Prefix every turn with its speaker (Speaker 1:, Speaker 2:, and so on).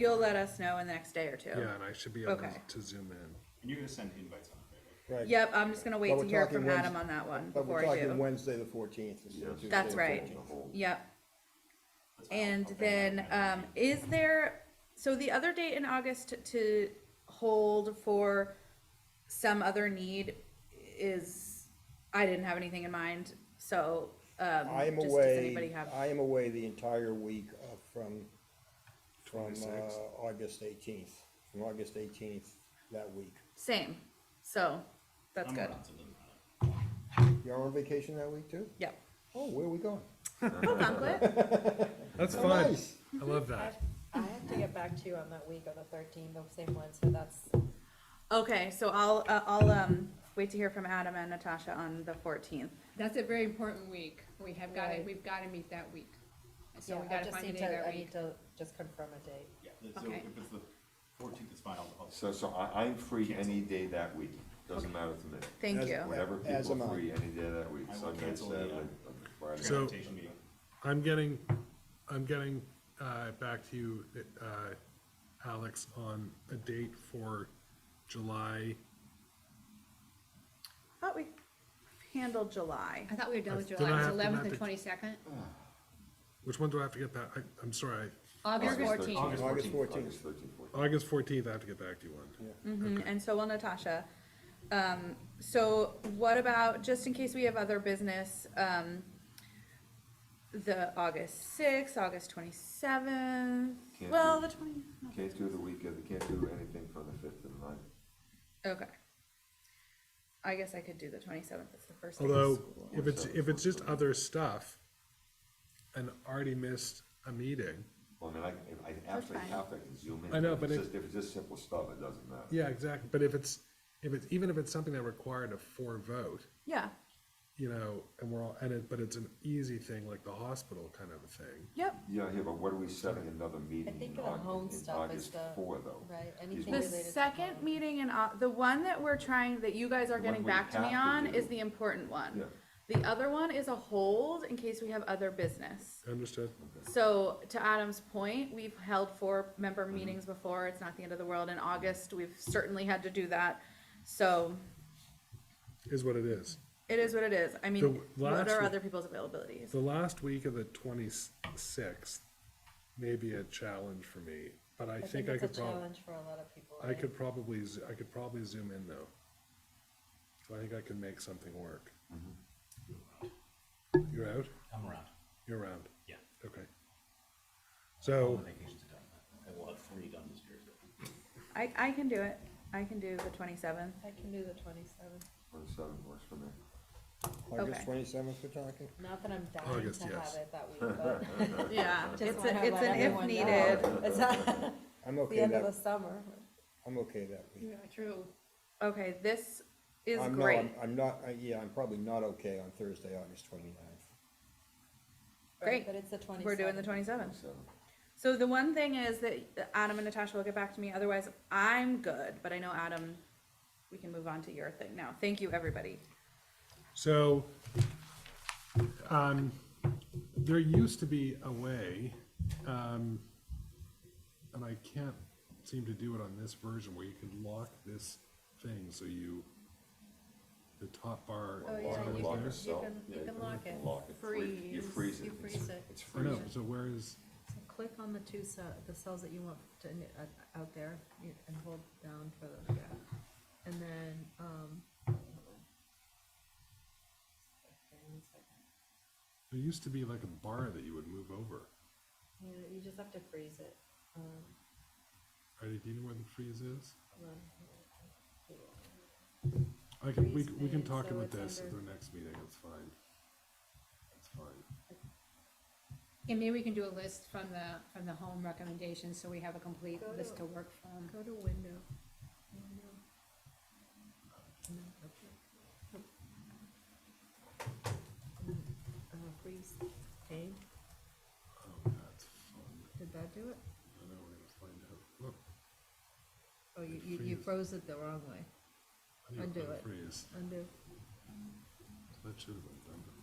Speaker 1: You'll let us know in the next day or two.
Speaker 2: Yeah, and I should be able to
Speaker 1: Okay.
Speaker 2: to zoom in.
Speaker 3: And you're gonna send invites on it, right?
Speaker 4: Right.
Speaker 1: Yep, I'm just gonna wait
Speaker 4: But
Speaker 1: to
Speaker 4: we're
Speaker 1: hear
Speaker 4: talking
Speaker 1: from
Speaker 4: Wednes-
Speaker 1: Adam on that one
Speaker 4: But we're
Speaker 1: before I
Speaker 4: talking
Speaker 1: do.
Speaker 4: Wednesday, the fourteenth. instead of Tuesday.
Speaker 1: That's
Speaker 4: the
Speaker 1: right.
Speaker 4: 14th.
Speaker 1: Yep.
Speaker 3: That's fine.
Speaker 1: And
Speaker 3: Okay.
Speaker 1: then, um, is there, so the other date in August to hold for some other need is, I didn't have anything in mind, so, um,
Speaker 4: I am
Speaker 1: just does anybody
Speaker 4: away,
Speaker 1: have?
Speaker 4: I am away the entire week of from, from,
Speaker 2: Twenty-sixth.
Speaker 4: uh, August eighteenth, from August eighteenth that week.
Speaker 1: Same, so, that's
Speaker 3: I'm
Speaker 1: good.
Speaker 3: around, so it doesn't matter.
Speaker 4: You're on vacation that week too?
Speaker 1: Yep.
Speaker 4: Oh, where are we going?
Speaker 1: Cool conflict.
Speaker 2: That's
Speaker 4: Oh,
Speaker 2: fun.
Speaker 4: nice.
Speaker 2: I love
Speaker 5: I
Speaker 2: that.
Speaker 5: have- I have to get back to you on that week of the thirteenth, the same one, so that's,
Speaker 1: Okay, so I'll, uh, I'll, um, wait to hear from Adam and Natasha on the fourteenth.
Speaker 6: That's a very important week. We have got to,
Speaker 5: Right.
Speaker 6: we've got to meet that week. So
Speaker 5: yeah,
Speaker 6: we
Speaker 5: I
Speaker 6: got to
Speaker 5: just
Speaker 6: find a
Speaker 5: need
Speaker 6: day
Speaker 5: to,
Speaker 6: that
Speaker 5: I need
Speaker 6: week.
Speaker 5: to just confirm a date.
Speaker 3: Yeah, so
Speaker 6: Okay.
Speaker 3: if it's the fourteenth, it's fine, I'll, I'll-
Speaker 7: So, so I, I'm free any day that week, doesn't matter to me.
Speaker 1: Thank
Speaker 4: As-
Speaker 1: you.
Speaker 7: Whenever
Speaker 4: As
Speaker 7: people
Speaker 4: am
Speaker 7: are
Speaker 4: I.
Speaker 7: free, any day that week,
Speaker 3: I will
Speaker 7: Sunday,
Speaker 3: cancel the,
Speaker 7: Saturday,
Speaker 3: uh,
Speaker 7: Friday.
Speaker 2: So-
Speaker 3: transportation meeting.
Speaker 2: I'm getting, I'm getting, uh, back to you, uh, Alex, on a date for July.
Speaker 1: Thought we handled July.
Speaker 6: I thought we were done with
Speaker 2: Did
Speaker 6: July.
Speaker 2: I
Speaker 6: It was
Speaker 2: have to
Speaker 6: eleventh
Speaker 2: map
Speaker 6: and
Speaker 2: it?
Speaker 6: twenty-second.
Speaker 2: Which one do I have to get back? I, I'm sorry.
Speaker 6: August
Speaker 7: thirteenth.
Speaker 6: fourteenth.
Speaker 4: August 14th.
Speaker 7: August thirteenth, fourteenth.
Speaker 2: August fourteenth, I have to get back to you on.
Speaker 1: Mhm, And so will Natasha. Um, so what about, just in case we have other business, um, the August sixth, August twenty-seventh,
Speaker 7: Can't
Speaker 1: well,
Speaker 7: do-
Speaker 1: the twenty,
Speaker 7: Can't do the week of, can't do anything from the fifth and ninth.
Speaker 1: okay. I guess I could do the twenty-seventh, it's the first day of
Speaker 2: Although,
Speaker 1: school.
Speaker 2: if it's, if it's just other stuff, and already missed a meeting,
Speaker 7: Well, I mean, I, can- if I absolutely
Speaker 1: fine.
Speaker 7: have to I can zoom in.
Speaker 2: I know,
Speaker 7: If
Speaker 2: but
Speaker 7: it's
Speaker 2: if-
Speaker 7: just- If it's just simple stuff, it doesn't matter.
Speaker 2: yeah, exactly, but if it's, if it's, even if it's something that required a four vote,
Speaker 1: Yeah,
Speaker 2: you know, and we're all, and it, but it's an easy thing, like the hospital kind of a thing.
Speaker 1: yep,
Speaker 7: Yeah, yeah, but what are we setting another meeting
Speaker 5: think
Speaker 7: in
Speaker 5: the home
Speaker 7: August, in
Speaker 5: stuff is
Speaker 7: August
Speaker 5: the-
Speaker 7: for though?
Speaker 5: right,
Speaker 7: Is
Speaker 5: anything
Speaker 7: what-
Speaker 1: the
Speaker 5: related to
Speaker 1: second
Speaker 5: mom.
Speaker 1: meeting in, Au- the one that we're trying, that you guys are
Speaker 7: The one
Speaker 1: getting
Speaker 7: we
Speaker 1: back to me
Speaker 7: have
Speaker 1: on
Speaker 7: to do.
Speaker 1: is the important one.
Speaker 7: Yeah.
Speaker 1: The other one is a hold in case we have other business.
Speaker 2: Understood?
Speaker 1: So to Adam's point, we've held four member meetings before. It's not the end of the world. In August, we've certainly had to do that. So
Speaker 2: Is what it is.
Speaker 1: it is what it is. I
Speaker 2: The
Speaker 1: mean, what
Speaker 2: last
Speaker 1: are
Speaker 2: one-
Speaker 1: other people's availabilities?
Speaker 2: The last week of the twenty-sixth may be a challenge for me, but I think I
Speaker 5: it's a
Speaker 2: could probably,
Speaker 5: Challenge for a lot of people.
Speaker 2: I
Speaker 5: right?
Speaker 2: could probably, z- I could probably zoom in though. So I think I can make something work. You're out?
Speaker 3: I'm around,
Speaker 2: You're around?
Speaker 3: Yeah.
Speaker 2: Okay. So,
Speaker 3: vacation's done, I will have three done this year, so.
Speaker 1: I, I can do it. I can do the twenty-seventh.
Speaker 5: I can do the twenty-seventh,
Speaker 7: Or seven works for me.
Speaker 4: August
Speaker 1: Okay.
Speaker 4: twenty-seventh we're talking?
Speaker 5: not that I'm dying
Speaker 2: August,
Speaker 5: to have
Speaker 2: yes.
Speaker 5: it that week, but.
Speaker 1: Yeah,
Speaker 5: just
Speaker 1: it's,
Speaker 5: wanna
Speaker 1: a- it's
Speaker 5: let
Speaker 1: an if
Speaker 5: everyone know.
Speaker 1: needed.
Speaker 5: It's not
Speaker 4: I'm
Speaker 5: the
Speaker 4: okay
Speaker 5: end of the
Speaker 4: that,
Speaker 5: summer.
Speaker 4: I'm okay that week.
Speaker 6: True.
Speaker 1: Okay, this is
Speaker 4: I'm not,
Speaker 1: great.
Speaker 4: I'm- I'm not, I- yeah, I'm probably not okay on Thursday, August twenty-ninth.
Speaker 1: Great.
Speaker 5: But it's the twenty-seventh.
Speaker 1: We're doing the twenty-seventh.
Speaker 6: Oh,
Speaker 7: Seven.
Speaker 1: So the one thing is that Adam and Natasha will get back to me, otherwise I'm good, but I know Adam, we can move on to your thing now. Thank you, everybody.
Speaker 2: so, um, there used to be a way, um, and I can't seem to do it on this version where you could lock this thing so you, the top bar.
Speaker 6: Oh,
Speaker 7: Lock
Speaker 6: yeah,
Speaker 7: it,
Speaker 6: you
Speaker 7: lock
Speaker 6: can-
Speaker 7: it, so-
Speaker 6: can- you
Speaker 7: yeah,
Speaker 6: can lock it.
Speaker 7: Lock it, free- you
Speaker 6: Freeze,
Speaker 7: freeze it.
Speaker 6: you
Speaker 7: it's-
Speaker 6: freeze it.
Speaker 7: It's
Speaker 2: I know,
Speaker 7: freezing.
Speaker 2: so where is,
Speaker 5: Click on the two ce- the cells that you want to, uh, out there you- and hold down for the, yeah. And then, um.
Speaker 2: there used to be like a bar that you would move over.
Speaker 5: Yeah, you just have to freeze it. Um,
Speaker 2: Alrighty, do you know where the freeze is?
Speaker 5: hold on.
Speaker 2: I can, we,
Speaker 5: Freeze
Speaker 2: we can
Speaker 5: page,
Speaker 2: talk
Speaker 5: so
Speaker 2: about
Speaker 5: it's
Speaker 2: this at
Speaker 5: under-
Speaker 2: the next meeting, it's fine. It's fine.
Speaker 6: And maybe we can do a list from the, from the home recommendations, so we have a complete
Speaker 5: Go
Speaker 6: list
Speaker 5: to-
Speaker 6: to work from.
Speaker 5: Go to window. Window. No, okay. Uh, freeze, aim,
Speaker 2: Oh, that's fun.
Speaker 5: did that do it?
Speaker 2: I know we're gonna find out. Look,
Speaker 5: Oh, you,
Speaker 2: It
Speaker 5: you, you
Speaker 2: freezes.
Speaker 5: froze it the wrong way,
Speaker 2: I need
Speaker 5: Undo
Speaker 2: to
Speaker 5: it.
Speaker 2: freeze.
Speaker 5: undo.
Speaker 2: That should have been done.